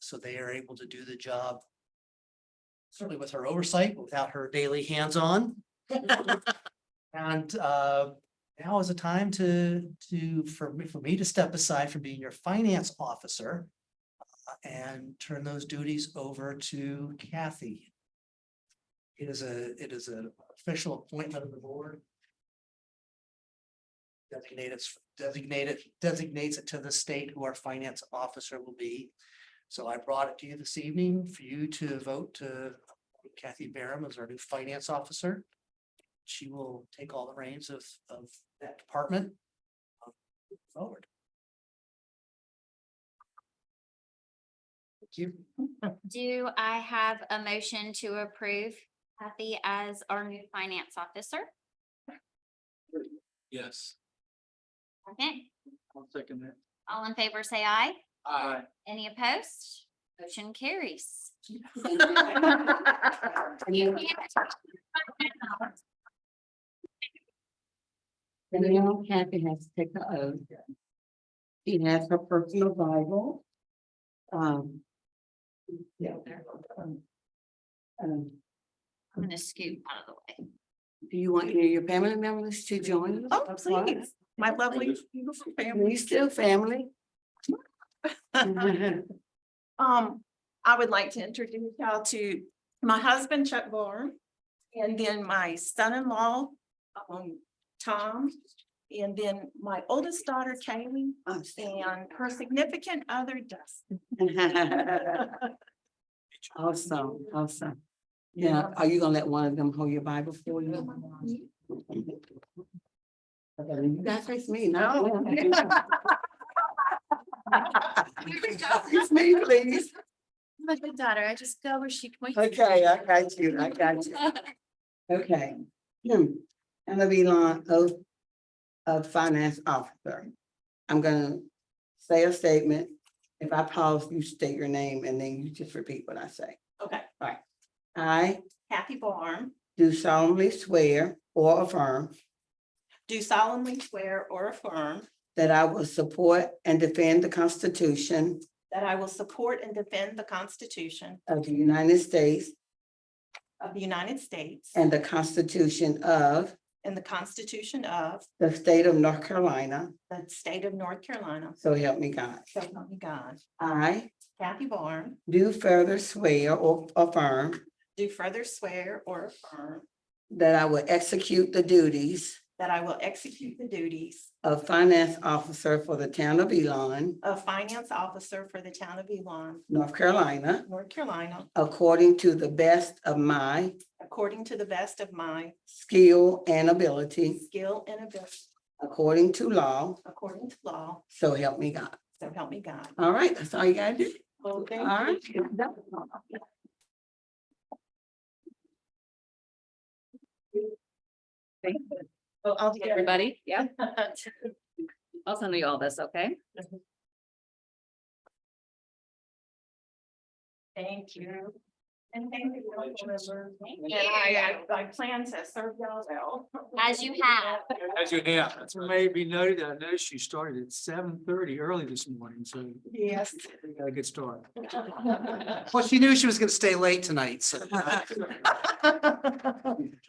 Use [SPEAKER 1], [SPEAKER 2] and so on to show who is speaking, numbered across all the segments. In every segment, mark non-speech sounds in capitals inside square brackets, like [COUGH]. [SPEAKER 1] So they are able to do the job. Certainly with her oversight, but without her daily hands-on. And uh, now is a time to, to, for me, for me to step aside from being your finance officer. uh, And turn those duties over to Kathy. It is a, it is an official appointment of the board. Designated, designated, designates it to the state who our finance officer will be. So I brought it to you this evening for you to vote to appoint Kathy Barham as our new finance officer. She will take all the reins of, of that department. um, Forward. Thank you.
[SPEAKER 2] Do I have a motion to approve Kathy as our new finance officer?
[SPEAKER 3] Yes.
[SPEAKER 2] Second,
[SPEAKER 3] I'll second that.
[SPEAKER 2] all in favor, say aye.
[SPEAKER 3] Aye.
[SPEAKER 2] Any opposed? Motion carries. You
[SPEAKER 4] Anyone
[SPEAKER 2] can't-
[SPEAKER 4] happy has to take the oath. She has her personal Bible. Um. yeah, um, um,
[SPEAKER 2] I'm gonna scoot out of the way.
[SPEAKER 4] do you want any of your family members to join? us?
[SPEAKER 5] Oh, please, my lovely, beautiful family.
[SPEAKER 4] We still family. [LAUGHS]
[SPEAKER 5] Um, I would like to introduce y'all to my husband Chuck Barr. And then my son-in-law, um, Tom. And then my oldest daughter Kaylee
[SPEAKER 4] I'm staying.
[SPEAKER 5] and her significant other Dustin.
[SPEAKER 4] Awesome, awesome. Now, are you gonna let one of them hold your Bible for
[SPEAKER 5] [LAUGHS]
[SPEAKER 4] you? You gotta face me,
[SPEAKER 5] [LAUGHS]
[SPEAKER 4] no? [LAUGHS] Face me, please.
[SPEAKER 2] My good daughter, I just go where she.
[SPEAKER 4] Okay, I got you, I got you. Okay. Hmm. I'm gonna be on oath of finance officer. I'm gonna say a statement. If I pause, you state your name and then you just repeat what I say.
[SPEAKER 5] Okay,
[SPEAKER 4] I
[SPEAKER 5] Kathy Barr,
[SPEAKER 4] do solemnly swear or affirm
[SPEAKER 5] do solemnly swear or affirm
[SPEAKER 4] that I will support and defend the Constitution
[SPEAKER 5] that I will support and defend the Constitution
[SPEAKER 4] of the United States
[SPEAKER 5] of the United States
[SPEAKER 4] and the Constitution of
[SPEAKER 5] and the Constitution of
[SPEAKER 4] the State of North Carolina,
[SPEAKER 5] the State of North Carolina.
[SPEAKER 4] so help me God.
[SPEAKER 5] So help me God.
[SPEAKER 4] I
[SPEAKER 5] Kathy Barn,
[SPEAKER 4] do further swear or affirm
[SPEAKER 5] do further swear or affirm
[SPEAKER 4] That I will execute the duties
[SPEAKER 5] that I will execute the duties
[SPEAKER 4] of finance officer for the town of Elon,
[SPEAKER 5] of finance officer for the town of Elon,
[SPEAKER 4] North Carolina,
[SPEAKER 5] North Carolina,
[SPEAKER 4] according to the best of my
[SPEAKER 5] according to the best of my
[SPEAKER 4] skill and ability,
[SPEAKER 5] skill and ability,
[SPEAKER 4] according to law,
[SPEAKER 5] according to law,
[SPEAKER 4] so help me God.
[SPEAKER 5] so help me God.
[SPEAKER 4] All right, that's all you gotta do.
[SPEAKER 5] Well, thank
[SPEAKER 4] All right.
[SPEAKER 5] you. I'll get everybody.
[SPEAKER 6] Everybody, yeah, I'll send you all this, okay?
[SPEAKER 5] [LAUGHS] Thank you. And thank you. council members. And I, I I plan to serve y'all well.
[SPEAKER 2] As you have.
[SPEAKER 3] As you have, it's maybe noted, I know she started at seven thirty early this morning, so we
[SPEAKER 5] Yes.
[SPEAKER 3] got a good start.
[SPEAKER 1] Well, she knew she was gonna stay late tonight,
[SPEAKER 3] [LAUGHS]
[SPEAKER 1] so.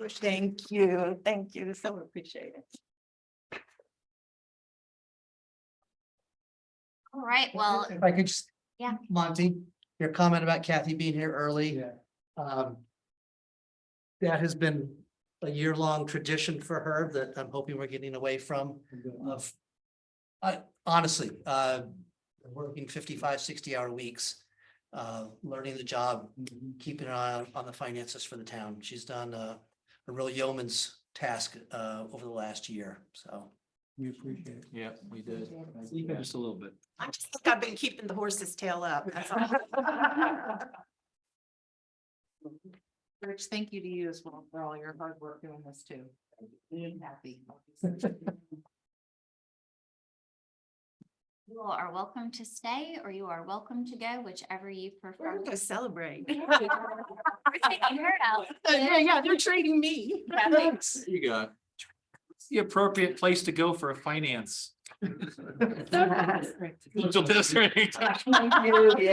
[SPEAKER 5] Thank you, thank you, so appreciate it.
[SPEAKER 2] [LAUGHS] All right, well,
[SPEAKER 1] If I could just.
[SPEAKER 2] Yeah.
[SPEAKER 1] Monty, your comment about Kathy being here early, um. That has been a year-long tradition for her that I'm hoping we're getting away from
[SPEAKER 3] Uh,
[SPEAKER 1] of. I honestly, uh, working 55, 60 hour weeks, uh, learning the job, keeping an eye on- on the finances for the town. She's done a, a real yeoman's task, uh, over the last year, so.
[SPEAKER 3] We appreciate it. Yeah, we did. Just a little bit.
[SPEAKER 5] I just think I've been keeping the horse's tail up. that's all.
[SPEAKER 7] Rich, thank you to you as well for all your hard work doing this too. I'm
[SPEAKER 5] [LAUGHS]
[SPEAKER 7] happy.
[SPEAKER 2] you all are welcome to stay or you are welcome to go, whichever you
[SPEAKER 5] We're
[SPEAKER 2] prefer.
[SPEAKER 5] gonna go
[SPEAKER 7] [LAUGHS]
[SPEAKER 5] celebrate.
[SPEAKER 7] Yeah, yeah, they're
[SPEAKER 5] [LAUGHS]
[SPEAKER 7] trading me.
[SPEAKER 3] You got. It's The appropriate place to go for a [LAUGHS] finance.
[SPEAKER 7] So-
[SPEAKER 3] Don't do this or anything.
[SPEAKER 4] Hallelujah.